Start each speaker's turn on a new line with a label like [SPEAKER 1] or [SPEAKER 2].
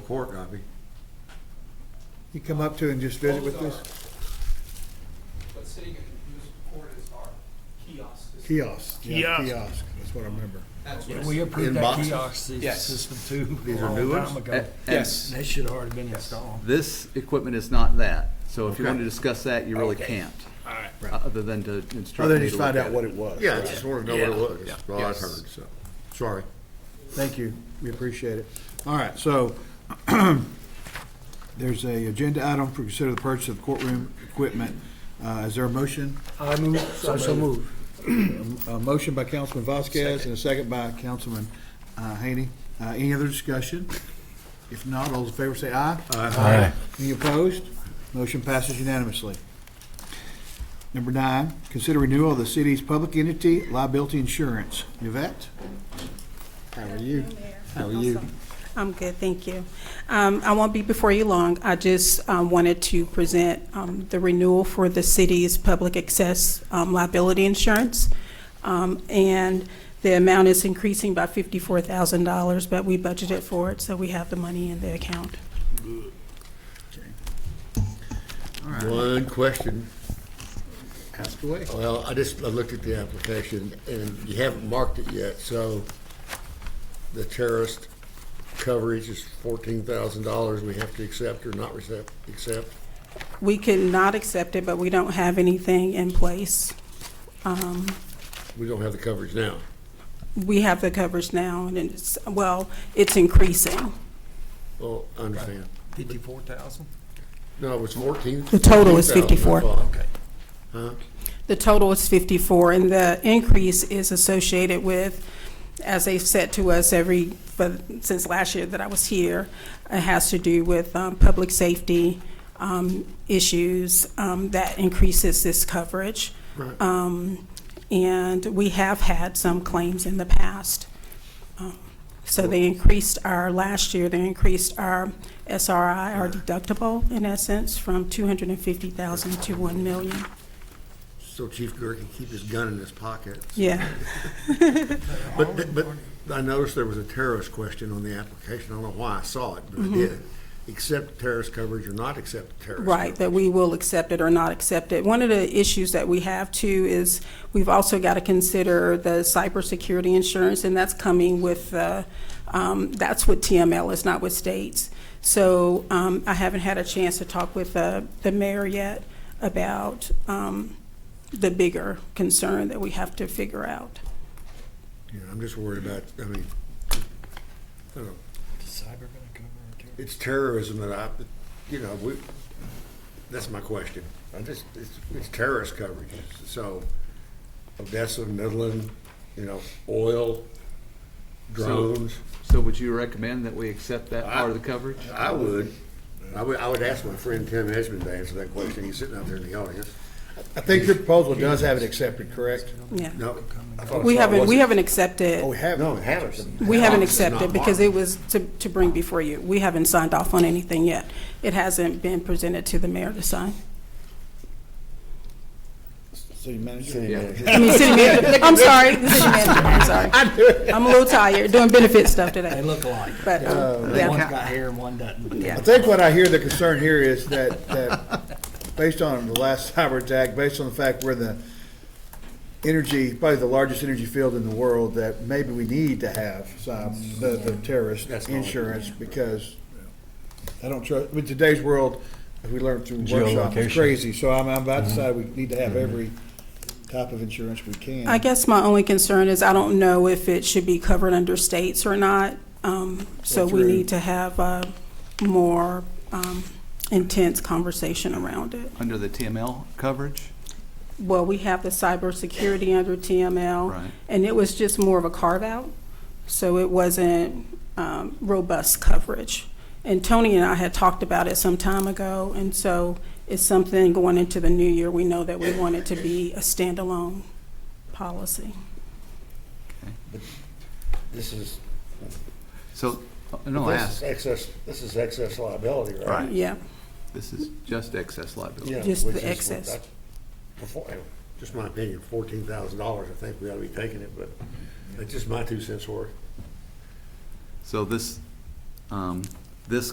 [SPEAKER 1] court copy.
[SPEAKER 2] You come up to and just visit with this
[SPEAKER 3] Those are- But sitting in the municipal court is our kiosk. system.
[SPEAKER 2] kiosk. yeah,
[SPEAKER 4] Kiosk.
[SPEAKER 2] Kiosk, that's what I remember.
[SPEAKER 3] That's
[SPEAKER 4] Yeah,
[SPEAKER 3] what it's-
[SPEAKER 4] we
[SPEAKER 1] In
[SPEAKER 4] approved that
[SPEAKER 1] boxes?
[SPEAKER 4] kiosk sy-
[SPEAKER 3] Yes.
[SPEAKER 4] system too,
[SPEAKER 1] These
[SPEAKER 4] a
[SPEAKER 1] are
[SPEAKER 4] long
[SPEAKER 1] new ones?
[SPEAKER 4] time ago.
[SPEAKER 3] Yes.
[SPEAKER 4] They should have already been
[SPEAKER 3] Yes.
[SPEAKER 4] installed.
[SPEAKER 5] This equipment is not that, so if you
[SPEAKER 1] Okay.
[SPEAKER 5] want to discuss that, you really
[SPEAKER 4] Okay.
[SPEAKER 5] can't, uh,
[SPEAKER 4] All right.
[SPEAKER 5] other than to instruct
[SPEAKER 2] Other
[SPEAKER 5] me
[SPEAKER 2] than
[SPEAKER 5] to
[SPEAKER 2] just find
[SPEAKER 5] look
[SPEAKER 2] out
[SPEAKER 5] at
[SPEAKER 2] what it was.
[SPEAKER 1] Yeah, I just wanted to know what it was,
[SPEAKER 5] Yeah.
[SPEAKER 1] that's all I've heard, so, sorry.
[SPEAKER 2] Thank you, we appreciate it. All right, so there's a agenda item for consider the purchase of courtroom equipment. Uh, Is there a motion?
[SPEAKER 4] I move, so so move.
[SPEAKER 2] A motion by Councilman Vasquez and a second by Councilman uh, Haney. Uh, Any other discussion? If not, all those in favor say aye. Aye. Any opposed? Motion passes unanimously. Number nine, consider renewal of the city's public entity liability insurance. Yvette? How are you? How are you?
[SPEAKER 6] I'm good, thank you. Um, I won't be before you long. I just um, wanted to present um, the renewal for the city's public access um, liability insurance. Um, And the amount is increasing by $54,000, but we budgeted for it, so we have the money in the account.
[SPEAKER 1] One question,
[SPEAKER 2] Ask away.
[SPEAKER 1] well, I just, I looked at the application, and you haven't marked it yet, so the terrorist coverage is fourteen thousand dollars we have to accept or not accept, accept?
[SPEAKER 6] We could not accept it, but we don't have anything in place.
[SPEAKER 1] We don't have the coverage now.
[SPEAKER 6] We have the coverage now, and it's, well, it's increasing.
[SPEAKER 1] Well, I understand.
[SPEAKER 4] Fifty-four thousand?
[SPEAKER 1] No, it was fourteen.
[SPEAKER 6] The total is
[SPEAKER 1] 14,000, I thought.
[SPEAKER 4] Okay.
[SPEAKER 1] Huh?
[SPEAKER 6] The total is 54, and the increase is associated with, as they've said to us every, but since last year that I was here, it has to do with um, public safety um, issues um, that increases this coverage.
[SPEAKER 1] Right.
[SPEAKER 6] Um, And we have had some claims in the past. Um, So they increased our, last year, they increased our SRI, our deductible, in essence, from 250,000 to 1 million.
[SPEAKER 1] So Chief Gurr can keep his gun in his pocket.
[SPEAKER 6] Yeah.
[SPEAKER 1] But, but I noticed there was a terrorist question on the application. I don't know why I saw it, but I did. Accept terrorist coverage or not accept terrorist?
[SPEAKER 6] Right, that we will accept it or not accept it. One of the issues that we have too is we've also got to consider the cybersecurity insurance, and that's coming with, uh, um, that's with TML, it's not with states. So um, I haven't had a chance to talk with uh, the mayor yet about um, the bigger concern that we have to figure out.
[SPEAKER 1] coverage? Yeah, I'm just worried about, I mean, I don't know.
[SPEAKER 4] Cyber gonna cover it too?
[SPEAKER 1] It's terrorism that I, you know, we, that's my question. I just, it's, it's terrorist coverage. So Odessa, Midland, you know, oil, drones.
[SPEAKER 5] it. So would you recommend that we accept that part of the coverage?
[SPEAKER 1] I would. I would, I would ask my friend Tim Esmond to answer that question. He's sitting out there in the audience.
[SPEAKER 2] I think your proposal does have it accepted, correct?
[SPEAKER 6] Yeah.
[SPEAKER 1] No. I thought I
[SPEAKER 6] We
[SPEAKER 1] saw it
[SPEAKER 6] haven't, we
[SPEAKER 1] wasn't.
[SPEAKER 6] haven't accepted.
[SPEAKER 2] Oh, we have.
[SPEAKER 1] No, it hasn't.
[SPEAKER 6] We haven't
[SPEAKER 1] It's not
[SPEAKER 6] accepted because it
[SPEAKER 1] marked.
[SPEAKER 6] was to, to bring before you. We haven't signed off on anything yet. It hasn't been presented to the mayor to sign.
[SPEAKER 2] City manager?
[SPEAKER 6] I mean, city manager, I'm sorry, the city manager, I'm sorry. I'm a little tired, doing benefit stuff
[SPEAKER 4] They
[SPEAKER 6] today,
[SPEAKER 4] look alike.
[SPEAKER 6] but, um,
[SPEAKER 4] One's
[SPEAKER 6] yeah,
[SPEAKER 4] got hair and one doesn't.
[SPEAKER 2] I
[SPEAKER 6] yeah.
[SPEAKER 2] think what I hear the concern here is that, that, based on the last cyber attack, based on the fact we're the energy, probably the largest energy field in the world, that maybe we need to have some, the, the terrorist
[SPEAKER 1] That's all.
[SPEAKER 2] insurance, because I don't trust, with today's world, as we learned through workshops, it's crazy, so I'm, I'm
[SPEAKER 1] Mm-hmm.
[SPEAKER 2] about to say we need to have every type of insurance we can.
[SPEAKER 6] I guess my only concern is I don't know if it should be covered under states or not. Um, so we
[SPEAKER 2] Through.
[SPEAKER 6] need to have a more, um, intense conversation around it.
[SPEAKER 5] Under the TML coverage?
[SPEAKER 6] Well, we have the cybersecurity under TML.
[SPEAKER 5] Right.
[SPEAKER 6] And it was just more of a carve-out, so it wasn't um, robust coverage. And Tony and I had talked about it some time ago, and so it's something going into the new year, we know that we want it to be a standalone policy.
[SPEAKER 1] This is,
[SPEAKER 5] So, uh, no,
[SPEAKER 1] this is
[SPEAKER 5] ask,
[SPEAKER 1] excess, this is excess liability, right?
[SPEAKER 5] Right.
[SPEAKER 6] Yeah,
[SPEAKER 5] this is just excess liability.
[SPEAKER 1] Yeah,
[SPEAKER 6] Just the
[SPEAKER 1] which is what
[SPEAKER 6] excess.
[SPEAKER 1] I- Before, anyway, just my opinion, fourteen thousand dollars, I think we ought to be taking it, but it's just my two cents worth.
[SPEAKER 5] So this, um, this